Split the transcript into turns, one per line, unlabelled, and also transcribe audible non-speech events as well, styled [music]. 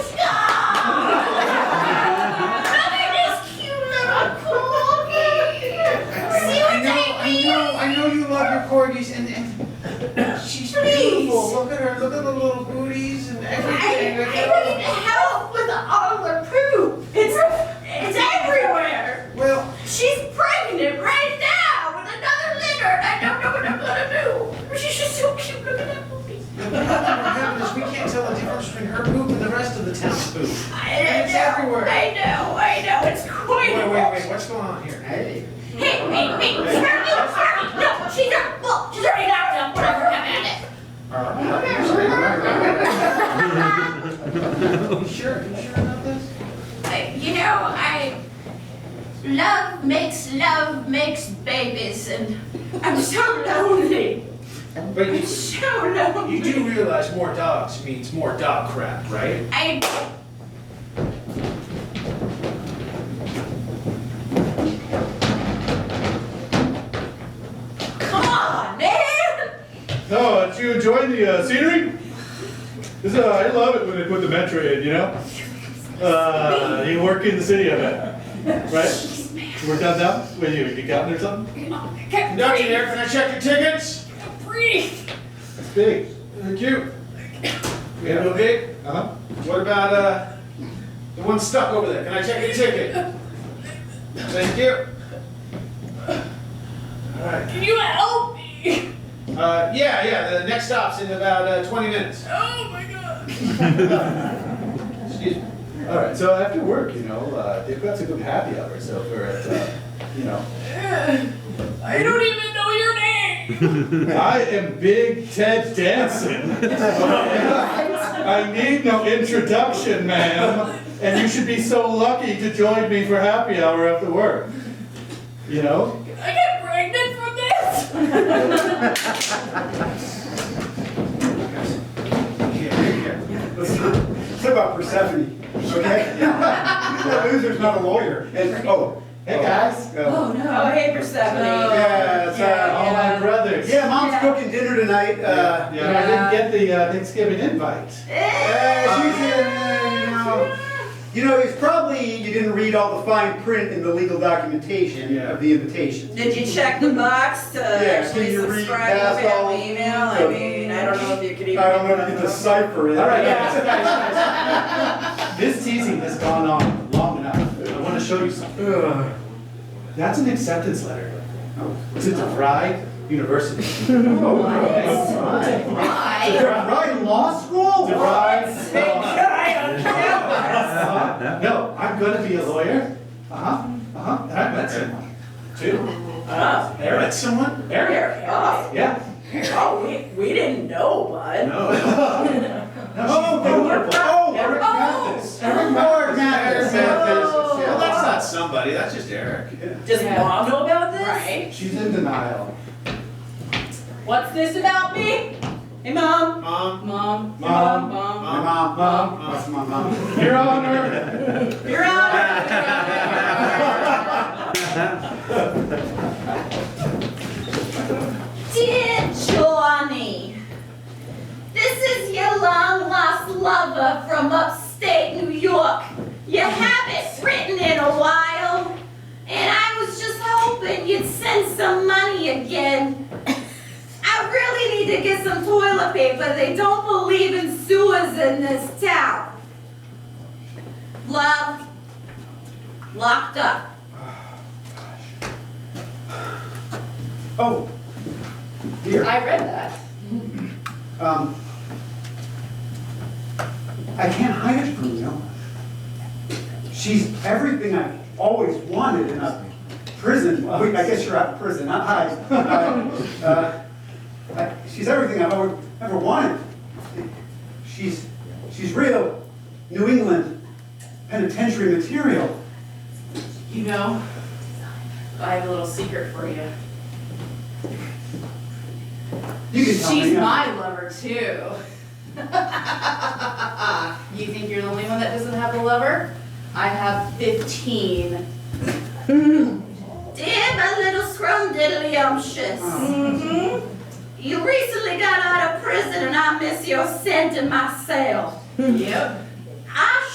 This is poop.
I
It's everywhere.
I know, I know, it's quite.
Wait, wait, wait, what's going on here?
Hey.
Hey, wait, wait, sorry, you, sorry, no, she's not, well, she's already knocked up, whatever, have at it.
You sure, you sure about this?
I- You know, I, love makes love makes babies, and I'm so lonely,
But
I'm
you,
so
you do
lonely.
realize more dogs means more dog crap, right?
I, come on, man!
No, did you enjoy the uh, scenery? This, uh, I love it when they put the metro in, you know? Uh, you work in the city, I bet. Right? You work downtown? What do you, you got there or something?
Conductor there, can I check your tickets?
Breathe.
It's big.
They're cute. We
Yeah.
have no big?
Uh-huh.
What about, uh, the one stuck over there? Can I check your ticket? Thank you. Alright,
Can you help me?
uh, yeah, yeah, the next stop's in about, uh, twenty minutes.
Oh my god.
Excuse me.
All right, so after work, you know, uh, they've got some good happy hour, so if we're at, uh, you know.
I don't even know your name.
[laughs] I am Big Ted Danson. I need no introduction, ma'am. And you should be so lucky to join me for happy hour after work. You know?
I get pregnant from this.
Here, here, here.
It's about Persephone, okay? The loser's not a lawyer. And, oh,
Hey, guys.
uh,
Oh, hey, Persephone.
yeah, it's, uh,
All my brothers.
yeah, mom's cooking dinner tonight, uh,
And I didn't get the uh, Thanksgiving invite.
uh, she's in, you know. You know, it's probably, you didn't read all the fine print in the legal documentation
Yeah.
of the invitation.
Did you check the box to actually
can you read
subscribe to
past all-
family email? I mean, I don't know if you could even.
I don't know if you
[laughs]
can decipher it.
All right, guys, guys, guys. [laughs] This teasing has gone on long enough. I want to show you something.
Ugh.
That's an acceptance letter Oh, to DeVry University.
Oh, [laughs]
Why?
Right, law school?
DeVry.
I
Uh-huh. No, I'm gonna be a lawyer. Uh-huh, uh-huh, and I met someone. Too.
don't
There, that's someone?
Eric, oh,
Yeah.
oh, we, we didn't know, bud.
No.
No, she's beautiful.
Oh,
Eric
Oh.
Mathis.
Eric Moore, Matt,
Oh.
Well, that's not somebody, that's just Eric.
Does mom know about this?
Right.
She's in denial.
What's this about me? Hey, mom.
Mom,
Mom.
Mom.
Mom.
My mom,
Mom,
that's my mom.
Your Honor.
You're out.
Dear Johnny, this is your long lost lover from upstate New York. You haven't written in a while, and I was just hoping you'd send some money again. I really need to get some toilet paper. They don't believe in sewers in this town. Love, locked up.
Oh, dear.
I read that.
Um, I can't hide it from you. She's everything I've always wanted in a prison. Wait, I guess you're out of prison, not high. [laughs] Uh, uh, I- She's everything I've ever, ever wanted. She's, she's real New England penitentiary material.
You know, I have a little secret for you.
You can tell me.
She's
uh,
my lover too. [laughs] you think you're the only one that doesn't have a lover? I have 15.
Dear my little scrumdiddlyumptious. Mm-hmm.
Hmm.
You recently got out of prison and I miss your scent in my cell.
Yep.